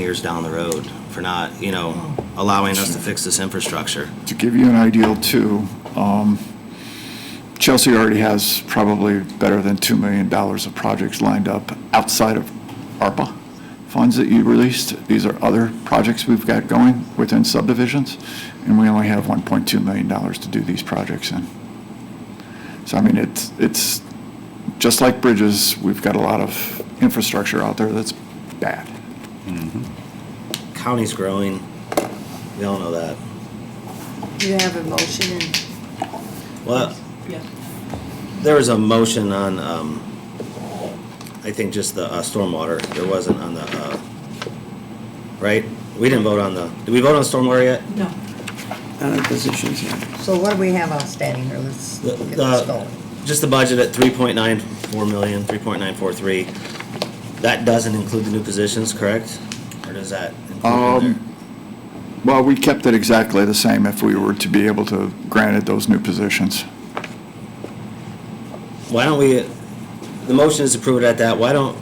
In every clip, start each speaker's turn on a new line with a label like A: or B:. A: years down the road for not, you know, allowing us to fix this infrastructure.
B: To give you an ideal too, um, Chelsea already has probably better than $2 million of projects lined up outside of ARPA funds that you released. These are other projects we've got going within subdivisions, and we only have $1.2 million to do these projects in. So I mean, it's, it's, just like bridges, we've got a lot of infrastructure out there that's bad.
A: County's growing, we all know that.
C: You have a motion and.
A: Well, there was a motion on, um, I think just the uh, stormwater, there wasn't on the, uh, right? We didn't vote on the, did we vote on stormwater yet?
D: No.
E: other positions, yeah.
C: So what do we have outstanding here? Let's
A: The-
C: get this
A: the-
C: going.
A: Just the budget at three point nine four million, three point nine four three. That doesn't include the new positions, correct? Or does that include in there?
B: Um, Well, we kept it exactly the same if we were to be able to grant it those new positions.
A: Why don't we, the motion is approved at that, why don't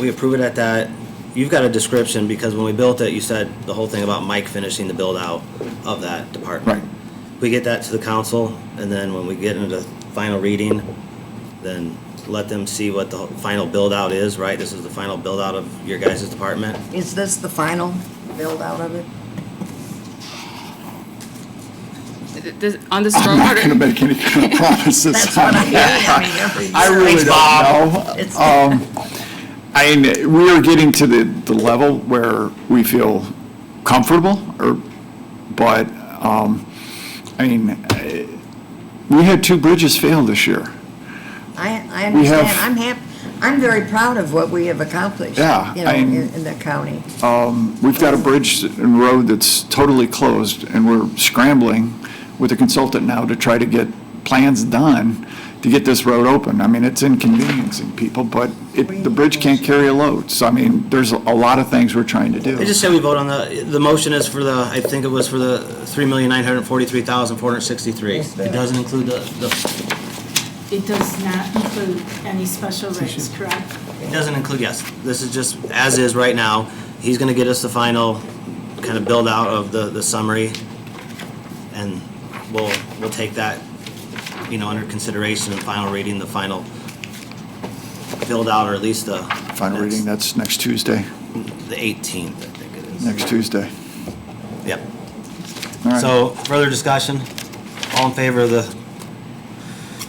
A: we approve it at that? You've got a description, because when we built it, you said the whole thing about Mike finishing the build-out of that department.
B: Right.
A: We get that to the council, and then when we get into the final reading, then let them see what the final build-out is, right? This is the final build-out of your guys' department?
C: Is this the final build out of it?
F: Th- th- On the
B: I'm not going to
F: stormwater,
B: make any kind of promises.
C: That's what I
B: on
C: mean.
B: that.
C: I mean,
B: I
C: every-
B: really don't
C: It's-
B: know. Um, I mean, we are getting to the, the level where we feel comfortable, or, but, um, I mean, eh, we had two bridges fail this year.
C: I, I
B: We have-
C: understand. I'm hap, I'm very proud of what we have accomplished.
B: Yeah,
C: You know,
B: I-
C: in, in the county.
B: Um, We've got a bridge and road that's totally closed, and we're scrambling with a consultant now to try to get plans done to get this road open. I mean, it's inconveniencing people, but it, the bridge can't carry a load. So I mean, there's a lot of things we're trying to
A: I
B: do.
A: just say we vote on the, the motion is for the, I think it was for the three million nine hundred forty-three thousand four hundred sixty-three.
C: Yes, ma'am.
A: It doesn't include the, the,
D: It does not include any special rates, correct?
A: it doesn't include, yes, this is just as is right now. He's gonna get us the final kind of build out of the, the summary. And we'll, we'll take that, you know, under consideration in final reading, the final build out, or at least the.
B: Final
A: next-
B: reading, that's next Tuesday,
A: The eighteenth, I think it is.
B: next Tuesday.
A: Yep.
B: All right.
A: So, further discussion? All in favor of the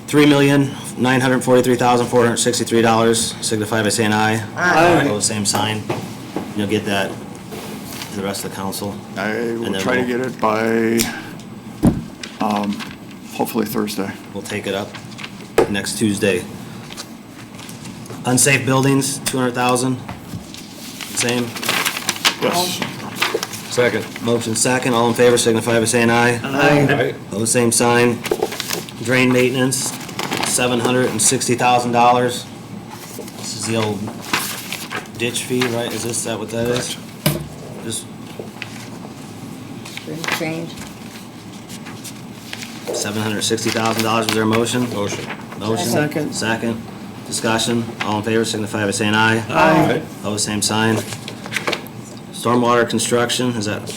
A: three million, nine hundred and forty-three thousand, four hundred and sixty-three dollars, signify by saying aye.
C: Aye.
A: Opposed, same sign. You'll get that to the rest of the council.
B: I
A: And
B: will
A: then
B: try to
A: we'll-
B: get it by, um, hopefully Thursday.
A: We'll take it up next Tuesday. Unsafe buildings, two hundred thousand. Same.
B: Yes.
G: Second.
A: Motion second, all in favor, signify by saying aye.
G: Aye.
A: Pose same sign. Drain maintenance, seven hundred and sixty thousand dollars. This is the old ditch fee, right? Is this, that what that is? Just
C: Didn't change.
A: seven hundred and sixty thousand dollars, was there a motion?
G: Motion.
A: Motion.
E: Second.
A: Second. Discussion, all in favor, signify by saying aye.
E: Aye.
A: Pose Oh, same sign. Stormwater construction, is that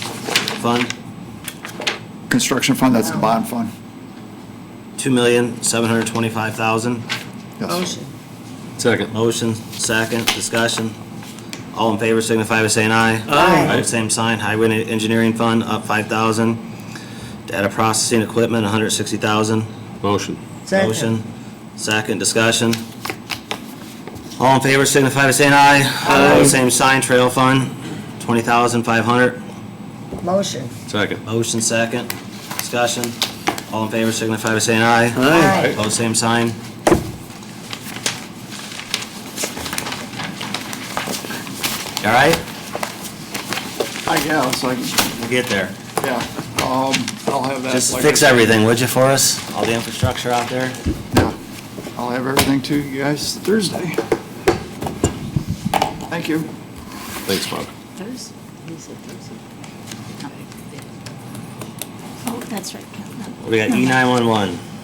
A: fund?
B: Construction fund, that's the bond fund.
A: Two million, seven hundred and twenty-five thousand.
B: Yes.
A: Oh,
C: Motion.
G: Second.
A: Motion, second, discussion. All in favor signify by saying aye.
C: Aye.
A: Opposed, Same sign, highway engineering fund up five thousand. Data processing equipment, a hundred sixty thousand.
G: Motion.
C: Second.
A: Motion, second, discussion. All in favor signify by saying aye. Aye. Same sign, trail fund, twenty thousand five hundred.
C: Motion.
G: Second.
A: Motion, second, discussion. All in favor signify by saying aye.
C: Aye.
A: Opposed, same sign. All right?
B: I guess, I,
A: We'll get there.
B: Yeah, um, I'll have that.
A: Just
B: like I
A: fix
B: said.
A: everything, would you, for us? All the infrastructure out there?
B: Yeah, I'll have everything to you guys Thursday. Thank you.
G: Thanks, Bob.
F: Thursday? He said Thursday.
D: Oh, that's right.
A: We got E nine one one.